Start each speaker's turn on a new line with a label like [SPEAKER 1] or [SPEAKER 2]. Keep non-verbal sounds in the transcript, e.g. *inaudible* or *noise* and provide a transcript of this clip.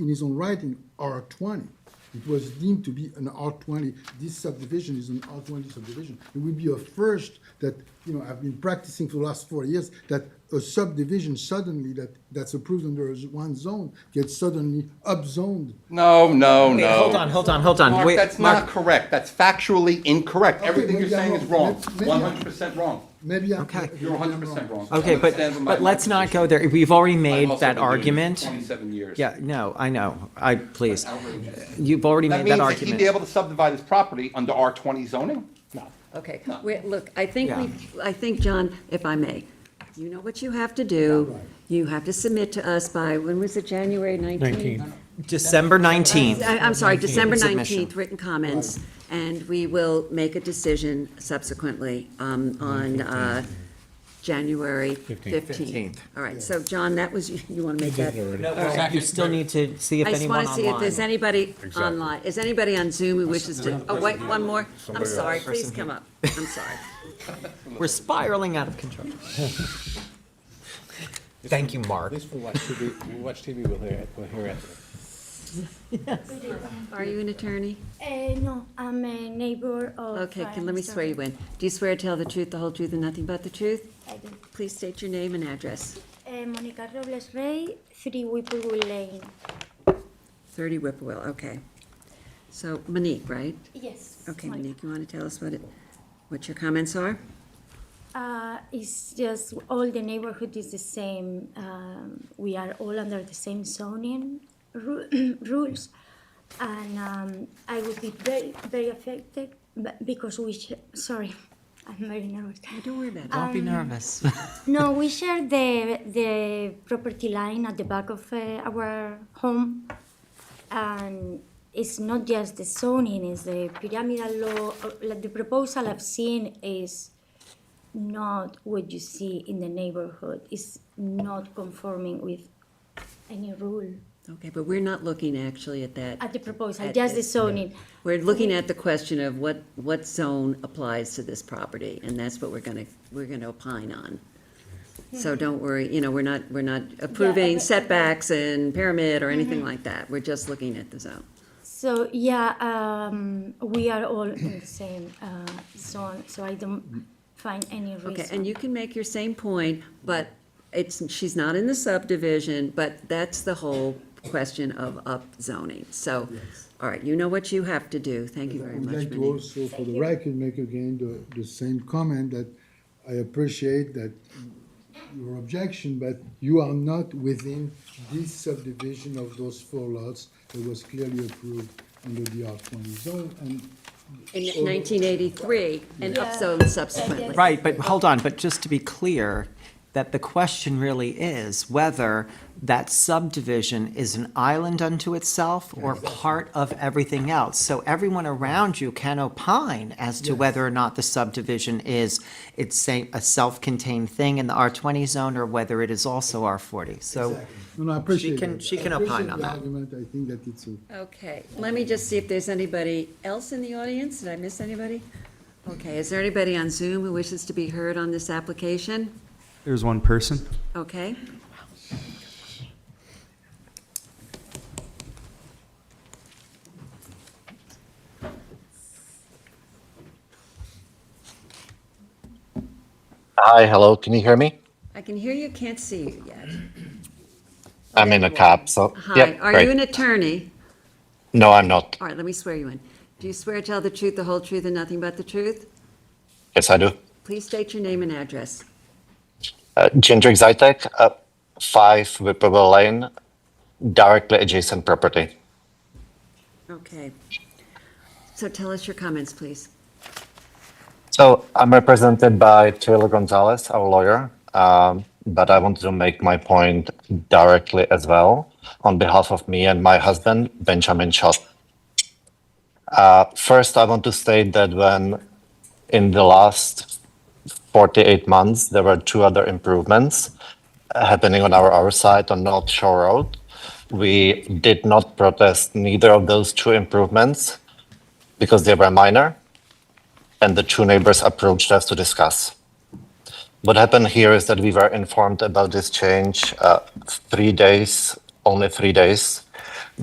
[SPEAKER 1] in his own writing, R twenty. It was deemed to be an R twenty, this subdivision is an R twenty subdivision. It would be a first that, you know, I've been practicing for the last four years, that a subdivision suddenly that, that's approved under one zone gets suddenly upzoned.
[SPEAKER 2] No, no,
[SPEAKER 3] Wait,
[SPEAKER 2] no.
[SPEAKER 3] hold on, hold on, hold on.
[SPEAKER 2] Mark,
[SPEAKER 3] Wait,
[SPEAKER 2] that's
[SPEAKER 3] Mark-
[SPEAKER 2] not correct. That's factually incorrect. Everything
[SPEAKER 1] maybe
[SPEAKER 2] you're saying
[SPEAKER 1] I'm
[SPEAKER 2] is
[SPEAKER 1] wrong.
[SPEAKER 2] wrong.
[SPEAKER 1] Maybe- maybe
[SPEAKER 2] One
[SPEAKER 1] I'm-
[SPEAKER 2] hundred percent wrong.
[SPEAKER 1] Maybe I.
[SPEAKER 3] Okay.
[SPEAKER 2] You're one hundred percent wrong.
[SPEAKER 3] Okay, but,
[SPEAKER 2] Stand by
[SPEAKER 3] but
[SPEAKER 2] my
[SPEAKER 3] let's not
[SPEAKER 2] position.
[SPEAKER 3] go there. We've already made
[SPEAKER 2] also
[SPEAKER 3] that
[SPEAKER 2] been doing this
[SPEAKER 3] argument.
[SPEAKER 2] Twenty-seven years.
[SPEAKER 3] Yeah, no, I know. I, please.
[SPEAKER 2] Outrageous.
[SPEAKER 3] You've already
[SPEAKER 2] That
[SPEAKER 3] made that
[SPEAKER 2] means that he'd be
[SPEAKER 3] argument.
[SPEAKER 2] able to subdivide his property under R twenty zoning? No.
[SPEAKER 4] Okay, wait, look, I think
[SPEAKER 3] Yeah.
[SPEAKER 4] we, I think, John, if I may, you know what you have to do. You have to submit to us by, when was it, January 19th?
[SPEAKER 3] December 19th.
[SPEAKER 4] I- I'm sorry, December
[SPEAKER 3] Submission.
[SPEAKER 4] 19th, written comments, and we will make a decision subsequently um, on uh, January 15th.
[SPEAKER 3] 15th.
[SPEAKER 4] All right, so John, that was, you want to make that?
[SPEAKER 3] You still need to see if
[SPEAKER 4] I just
[SPEAKER 3] anyone
[SPEAKER 4] want to see if there's
[SPEAKER 3] online.
[SPEAKER 4] anybody online, is anybody on Zoom who wishes to, oh, wait, one more? I'm sorry, please come up, I'm
[SPEAKER 3] *laughs*
[SPEAKER 4] sorry.
[SPEAKER 3] We're spiraling out of control. *laughs* Thank you, Mark.
[SPEAKER 5] At least we'll watch TV, we'll watch TV, we'll hear it, we'll hear it.
[SPEAKER 4] Are you an attorney?
[SPEAKER 6] Uh, no, I'm a neighbor of.
[SPEAKER 4] Okay,
[SPEAKER 6] uh,
[SPEAKER 4] can, let me
[SPEAKER 6] Mr.
[SPEAKER 4] swear you in. Do you swear to tell the truth, the whole truth, and nothing but the truth?
[SPEAKER 6] I do.
[SPEAKER 4] Please state your name and address.
[SPEAKER 6] Uh, Monica Robles Rey, three Whipple Lane.
[SPEAKER 4] 30 Whipplewell, okay. So Monique, right?
[SPEAKER 6] Yes.
[SPEAKER 4] Okay,
[SPEAKER 6] Monica.
[SPEAKER 4] Monique, you want to tell us what it, what your comments are?
[SPEAKER 6] Uh, it's just all the neighborhood is the same. Um, we are all under the same zoning ru- *clears throat* rules, and um, I would be very, very affected but because we. Sh- sorry, *laughs* I'm very nervous.
[SPEAKER 4] Don't worry about it.
[SPEAKER 3] Don't be nervous. *laughs*
[SPEAKER 6] No, we share the the property line at the back of uh, our home, and it's not just the zoning; it's the pyramidal law. uh, Like the proposal I've seen is not what you see in the neighborhood. It's not conforming with any rule
[SPEAKER 4] Oh, Okay, but we're not looking actually at that.
[SPEAKER 6] at the proposal,
[SPEAKER 4] At
[SPEAKER 6] just the
[SPEAKER 4] this-
[SPEAKER 6] zoning.
[SPEAKER 4] We're looking at the question of what, what zone applies to this property, and that's what we're gonna, we're gonna opine on. So don't worry, you know, we're not, we're not approving
[SPEAKER 6] but-
[SPEAKER 4] setbacks and pyramid or anything like that, we're just looking at the zone.
[SPEAKER 6] So yeah, um, we are all in the same uh, zone, so I don't find any reason.
[SPEAKER 4] Mm. Okay, and you can make your same point, but it's, she's not in the subdivision, but that's the whole question of upzoning, so, all right, you know what you have to do, thank you
[SPEAKER 1] I
[SPEAKER 4] very
[SPEAKER 1] would
[SPEAKER 4] much,
[SPEAKER 1] like to
[SPEAKER 4] Monique.
[SPEAKER 1] also, for the record, make again the, the same comment that I appreciate that your objection, but you are not within this subdivision of those four lots that was clearly approved under the R twenty zone, and
[SPEAKER 4] In nineteen eighty-three, and upzone subsequently.
[SPEAKER 3] Right, but hold on, but just to be clear, that the question really is whether that subdivision is an island unto itself or part of everything else. So everyone around you can opine as to whether or not the subdivision is, it's say- a self-contained thing in the R20 zone or whether it is also R40. So
[SPEAKER 1] No, no, I appreciate
[SPEAKER 3] can-
[SPEAKER 1] that.
[SPEAKER 3] she can
[SPEAKER 1] I appreciate
[SPEAKER 3] opine on
[SPEAKER 1] the
[SPEAKER 3] that.
[SPEAKER 1] Argument, I think that it's a.
[SPEAKER 4] Okay, let me just see if there's anybody else in the audience. Did I miss anybody? Okay, is there anybody on Zoom who wishes to be heard on this application?
[SPEAKER 7] There's one person.
[SPEAKER 4] Okay.
[SPEAKER 8] Hi, hello. Can you hear me?
[SPEAKER 4] I can hear you, can't see you yet.
[SPEAKER 8] I'm in a cab, so
[SPEAKER 4] Hi,
[SPEAKER 8] yep,
[SPEAKER 4] are
[SPEAKER 8] great.
[SPEAKER 4] you an attorney?
[SPEAKER 8] no, I'm not.
[SPEAKER 4] All right, let me swear you in. Do you swear to tell the truth, the whole truth, and nothing but the truth?
[SPEAKER 8] Yes, I do.
[SPEAKER 4] Please state your name and address.
[SPEAKER 8] Uh, Jindrik Zajtek, uh, five Whipple Lane, directly adjacent property.
[SPEAKER 4] Okay. So tell us your comments, please.
[SPEAKER 8] So I'm represented by Taylor Gonzalez, our lawyer, um, but I wanted to make my point directly as well on behalf of me and my husband, Benjamin Schott. Uh, first, I want to state that when in the last 48 months, there were two other improvements uh, happening on our, our side on North Shore Road. We did not protest neither of those two improvements because they were minor and the two neighbors approached us to discuss. What happened here is that we were informed about this change uh, three days, only three days